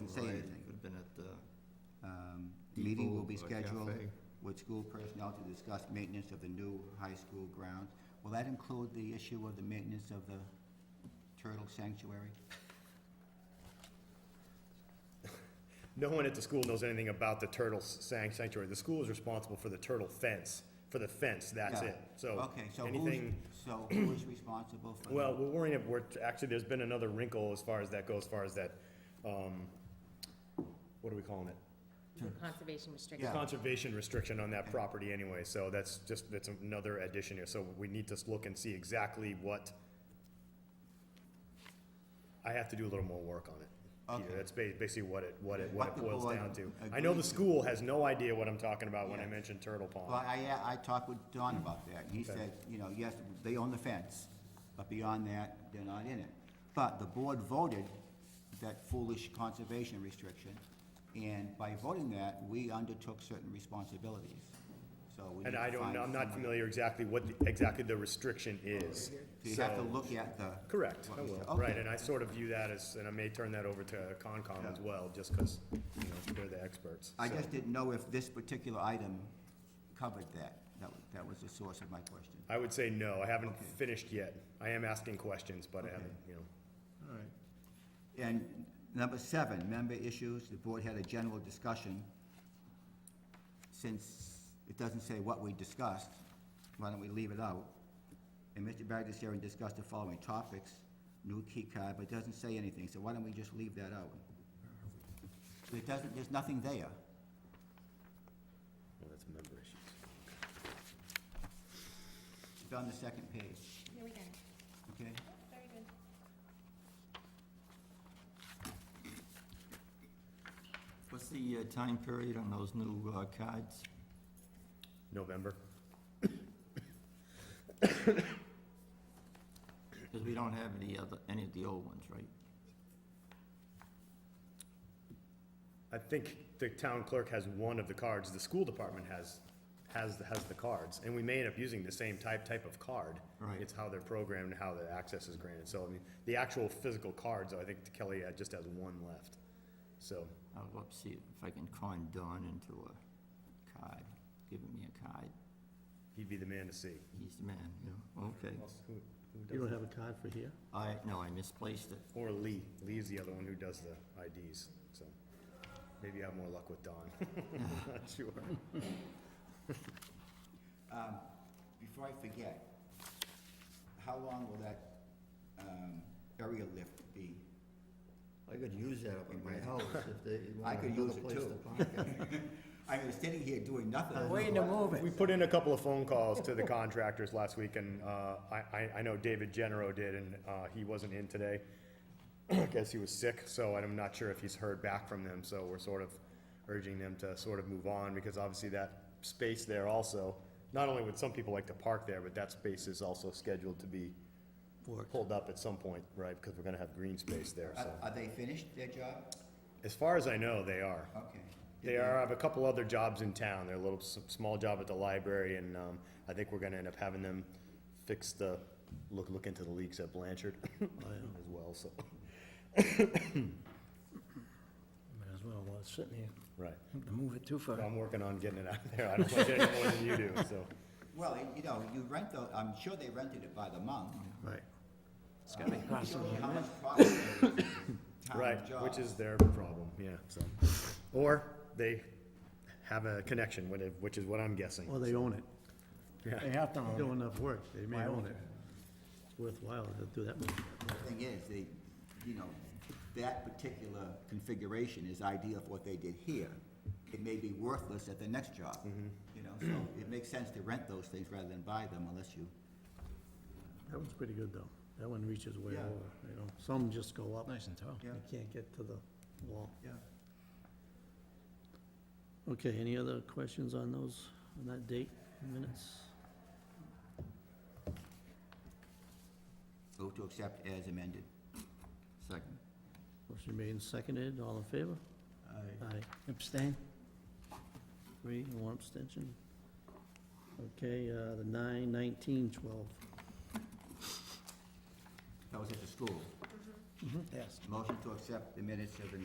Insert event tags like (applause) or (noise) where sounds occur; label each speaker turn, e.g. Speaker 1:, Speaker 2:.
Speaker 1: Meeting will be
Speaker 2: Depot or a
Speaker 1: scheduled
Speaker 2: cafe.
Speaker 1: with school personnel to discuss maintenance of the new high school grounds. Will that include the issue of the maintenance of the turtle sanctuary?
Speaker 3: No one at the school knows anything about the turtle s- san- sanctuary. The school is responsible for the turtle fence, for the fence, that's
Speaker 1: Yeah.
Speaker 3: it. So
Speaker 1: Okay, so who's,
Speaker 3: anything,
Speaker 1: so who is responsible for? the-
Speaker 3: well, we're worrying, if we're, actually, there's been another wrinkle as far as that goes, as far as that, um, what are we calling it?
Speaker 4: Conservation restriction.
Speaker 1: Yeah.
Speaker 3: Conservation restriction on that
Speaker 1: Okay.
Speaker 3: property anyway, so that's just, that's another addition here. So we need to look and see exactly what, I have to do a little more work on it. Peter.
Speaker 1: Okay.
Speaker 3: That's ba- basically what it, what it,
Speaker 1: What
Speaker 3: what it
Speaker 1: the
Speaker 3: boils
Speaker 1: board
Speaker 3: down to. I know
Speaker 1: agreed to.
Speaker 3: the school has no idea what I'm talking about when I
Speaker 1: Yes.
Speaker 3: mention Turtle
Speaker 1: Well,
Speaker 3: Pond.
Speaker 1: I, I talked with Don about that, and he
Speaker 3: Okay.
Speaker 1: said, you know, yes, they own the fence, but beyond that, they're not in it. But the board voted that foolish conservation restriction, and by voting that, we undertook certain responsibilities, so we need
Speaker 3: And
Speaker 1: to
Speaker 3: I don't,
Speaker 1: find
Speaker 3: know- I'm not
Speaker 1: someone.
Speaker 3: familiar exactly what, the- exactly the restriction is.
Speaker 1: So you have to
Speaker 3: So-
Speaker 1: look at the.
Speaker 3: Correct,
Speaker 1: what
Speaker 3: I
Speaker 1: we said.
Speaker 3: will, right,
Speaker 1: Okay.
Speaker 3: and I sort of view that as, and I may turn that over to Concom as
Speaker 1: Yeah.
Speaker 3: well, just because, you know, they're the experts.
Speaker 1: I
Speaker 3: So-
Speaker 1: just didn't know if this particular item covered that. That was, that was the source of my question.
Speaker 3: I would say no, I haven't
Speaker 1: Okay.
Speaker 3: finished yet. I am asking questions, but I
Speaker 1: Okay.
Speaker 3: haven't, you know.
Speaker 2: All right.
Speaker 1: And number seven, member issues, the board had a general discussion. Since it doesn't say what we discussed, why don't we leave it out? And Mr. Bagdasarian discussed the following topics, new key card, but it doesn't say anything, so why don't we just leave that out? It doesn't, there's nothing there.
Speaker 2: Well, that's member issues.
Speaker 1: It's on the second page,
Speaker 4: Here we go.
Speaker 1: okay?
Speaker 4: Very good.
Speaker 5: What's the uh, time period on those new uh, cards?
Speaker 3: November.
Speaker 5: Because we don't have any other, any of the old ones, right?
Speaker 3: I think the town clerk has one of the cards, the school department has, has, has the cards, and we may end up using the same type, type of card.
Speaker 5: Right.
Speaker 3: It's how they're programmed and how the access is granted, so I mean, the actual physical cards, I think Kelly uh, just has one left, so.
Speaker 5: I'll go up, see if I can con Don into a card, giving me a card.
Speaker 3: He'd be the man to see.
Speaker 5: He's the man, you know, okay.
Speaker 3: Who- who does
Speaker 2: You don't
Speaker 3: it?
Speaker 2: have a card for here?
Speaker 5: I, no, I misplaced it.
Speaker 3: Or Lee, Lee's the other one who does the IDs, so maybe you have more luck with Don. Not sure.
Speaker 1: Um, Before I forget, how long will that um, area lift be?
Speaker 5: I could use that up at my house if they
Speaker 1: (laughs) I
Speaker 5: want
Speaker 1: could
Speaker 5: another
Speaker 1: use it
Speaker 5: place to
Speaker 1: too.
Speaker 5: park it.
Speaker 1: (laughs) I mean, sitting here doing nothing.
Speaker 5: Waiting to move it.
Speaker 3: We put in a couple of phone calls to the contractors last week, and uh, I, I- I know David Genero did, and uh, he wasn't in today. I guess he was sick, so I'm not sure if he's heard back from them, so we're sort of urging them to sort of move on, because obviously that space there also, not only would some people like to park there, but that space is also scheduled to be pulled up at some point, right, because we're gonna have green space there,
Speaker 1: Are
Speaker 3: so.
Speaker 1: are they finished their job?
Speaker 3: As far as I know, they are.
Speaker 1: Okay.
Speaker 3: They are, I have a couple other jobs in town, they're a little, s- small job at the library, and, um, I think we're gonna end up having them fix the, look, look into the leaks at Blanchard (laughs)
Speaker 2: Oh,
Speaker 3: as well, so,
Speaker 2: Might as well, while it's sitting here,
Speaker 3: right.
Speaker 2: move it too far.
Speaker 3: I'm working on getting it out of there, I don't like it any more than you do, so.
Speaker 1: Well, you know, you rent the, I'm sure they rented it by the month.
Speaker 2: Right.
Speaker 1: It's gotta (laughs) cost How much profit there is in town
Speaker 3: Right, which
Speaker 1: jobs.
Speaker 3: is their problem, yeah, so. Or they have a connection with it, which is what I'm guessing.
Speaker 2: Well, they own it.
Speaker 3: Yeah.
Speaker 2: They have to Do enough work, they may own it. It's worthwhile to do that much.
Speaker 1: The thing is, they, you know, that particular configuration is ideal for what they did here. It may be worthless at the next job,
Speaker 3: Mm-hmm.
Speaker 1: you know, so it makes sense to rent those things rather than buy them unless you,
Speaker 2: That one's pretty good, though. That one reaches way
Speaker 1: Yeah.
Speaker 2: over, you know, some just go up. Nice and tall.
Speaker 1: Yeah.
Speaker 2: You can't get to the wall.
Speaker 1: yeah.
Speaker 2: Okay, any other questions on those, on that date, minutes?
Speaker 1: Vote to accept as amended.
Speaker 5: Second.
Speaker 2: Motion made and seconded, all in favor? Aye. Abstain? Three, and one abstention. Okay, uh, the nine, nineteen, twelve.
Speaker 1: That was at the school.
Speaker 2: Yes.
Speaker 3: Mm-hmm.
Speaker 1: Motion to accept the minutes of the